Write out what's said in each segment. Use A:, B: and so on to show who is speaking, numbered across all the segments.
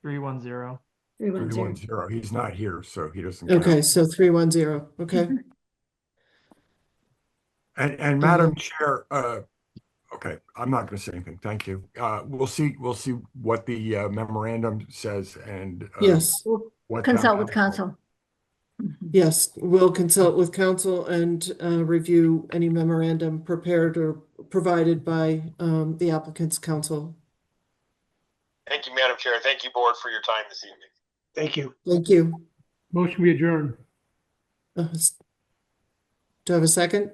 A: Three one zero.
B: Three one
C: Three
B: zero.
C: one zero, he's not here, so he doesn't. count.
D: Okay, so three one zero, okay.
B: Mm-hmm.
C: And, and
D: Mm-hmm.
C: Madam Chair, uh, okay, I'm not gonna say anything, thank you. Uh, we'll see, we'll see what the uh, memorandum says and. uh,
D: Yes,
B: We'll
C: what that-
B: Consult with council. Mhm.
D: yes, we'll consult with council and uh, review any memorandum prepared or provided by um, the applicant's council.
E: Thank you, Madam Chair. Thank you, Board, for your time this evening.
F: Thank you.
D: Thank you.
F: Motion we adjourn.
D: Uh, s- Do I have a second?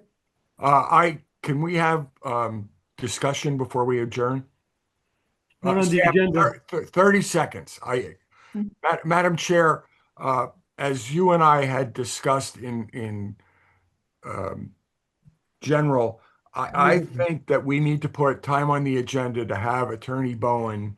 C: Uh, I, can we have, um, discussion before we adjourn?
F: Not
C: Uh,
F: on the
C: Sam,
F: agenda.
C: thir- Thirty seconds, I,
B: Mm.
C: Ma- Madam Chair, uh, as you and I had discussed in, in, um, general, I,
F: Mm-hmm.
C: I think that we need to put time on the agenda to have Attorney Bowen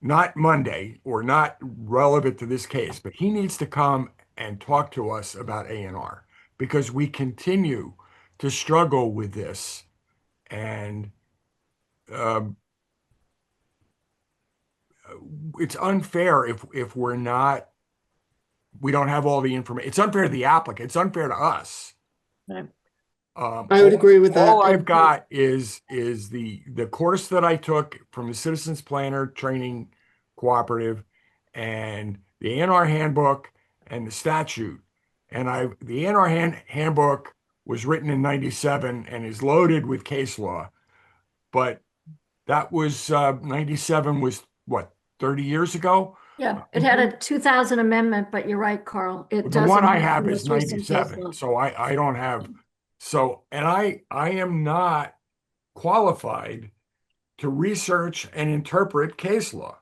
C: not Monday or not relevant to this case, but he needs to come and talk to us about A and R because we continue to struggle with this and um, it's unfair if if we're not we don't have all the information. It's unfair to the applicant. It's unfair to us.
B: Right.
C: Um,
D: I would
C: all-
D: agree with that.
C: all I've got is, is the, the course that I took from the Citizens Planner Training Cooperative and the ANR handbook and the statute. And I, the ANR hand, handbook was written in ninety-seven and is loaded with case law. But that was, uh, ninety-seven was what, thirty years ago?
B: Yeah, it had a two thousand amendment, but you're right, Carl. It
C: Uh, mm-hmm. The
B: doesn't.
C: one I
B: have
C: have
B: the
C: is
B: most recent case law.
C: ninety-seven, so I, I don't have, so, and I, I am not qualified to research and interpret case law.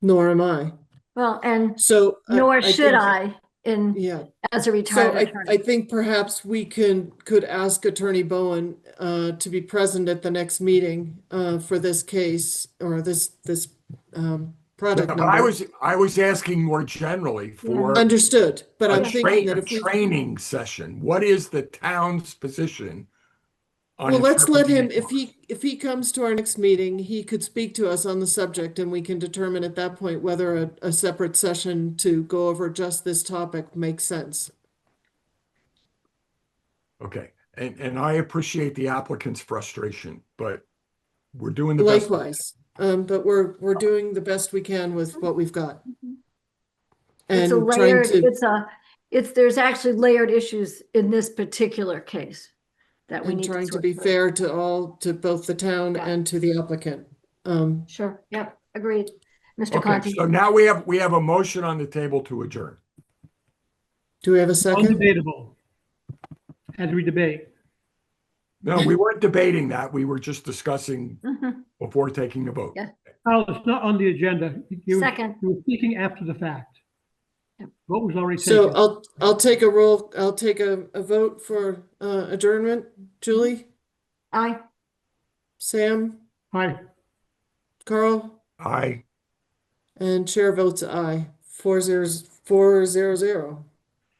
D: Nor am I,
B: Well, and
D: so. Uh, I-
B: nor should
D: think-
B: I in,
D: Yeah,
B: as a
D: so
B: retired
D: I, I
B: attorney.
D: think perhaps we can, could ask Attorney Bowen uh, to be present at the next meeting uh, for this case or this, this um, product
C: But I
D: number.
C: was, I was asking more generally for a
D: Understood, but I'm
C: tra-
D: thinking that
C: a
D: if we,
C: training session. What is the town's position? on
D: well, let's let him,
C: interpreting
D: if
C: case law?
D: he, if he comes to our next meeting, he could speak to us on the subject and we can determine at that point whether a, a separate session to go over just this topic makes sense.
C: Okay, and, and I appreciate the applicant's frustration, but we're doing the best.
D: Likewise, um, but we're, we're doing the best we can with what we've got.
B: It's a
D: And trying
B: layered,
D: to,
B: it's a, it's, there's actually layered issues in this particular case that we
D: and
B: need to.
D: trying to
B: sort
D: be
B: through.
D: fair to all, to both the town
B: Yeah.
D: and to the applicant. Um,
B: Sure, yep, agreed. Mr.
C: Okay,
B: Conti,
C: so now we have, we have a motion on the table to adjourn.
D: do we have a second?
F: Undebatable. As we debate.
C: No, we weren't debating that. We were just discussing
B: Mhm,
C: before taking the vote.
B: Yeah.
F: Al, it's not on the agenda. You were-
B: second,
F: you were speaking after the fact.
B: Yep.
F: Vote was already
D: So uh,
F: taken.
D: I'll, I'll take a roll, I'll take a, a vote for, uh, adjournment. Julie,
B: aye.
D: Sam,
F: Hi,
D: Carl,
C: Aye.
D: and chair votes aye. Four zeros, four zero zero.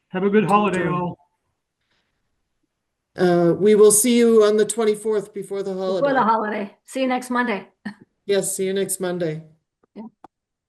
F: have a good holiday,
D: Adjourn.
F: all.
D: Uh, we will see you on the twenty-fourth before the
B: Before the
D: holiday.
B: holiday. See you next Monday.
D: Yes, see you next Monday.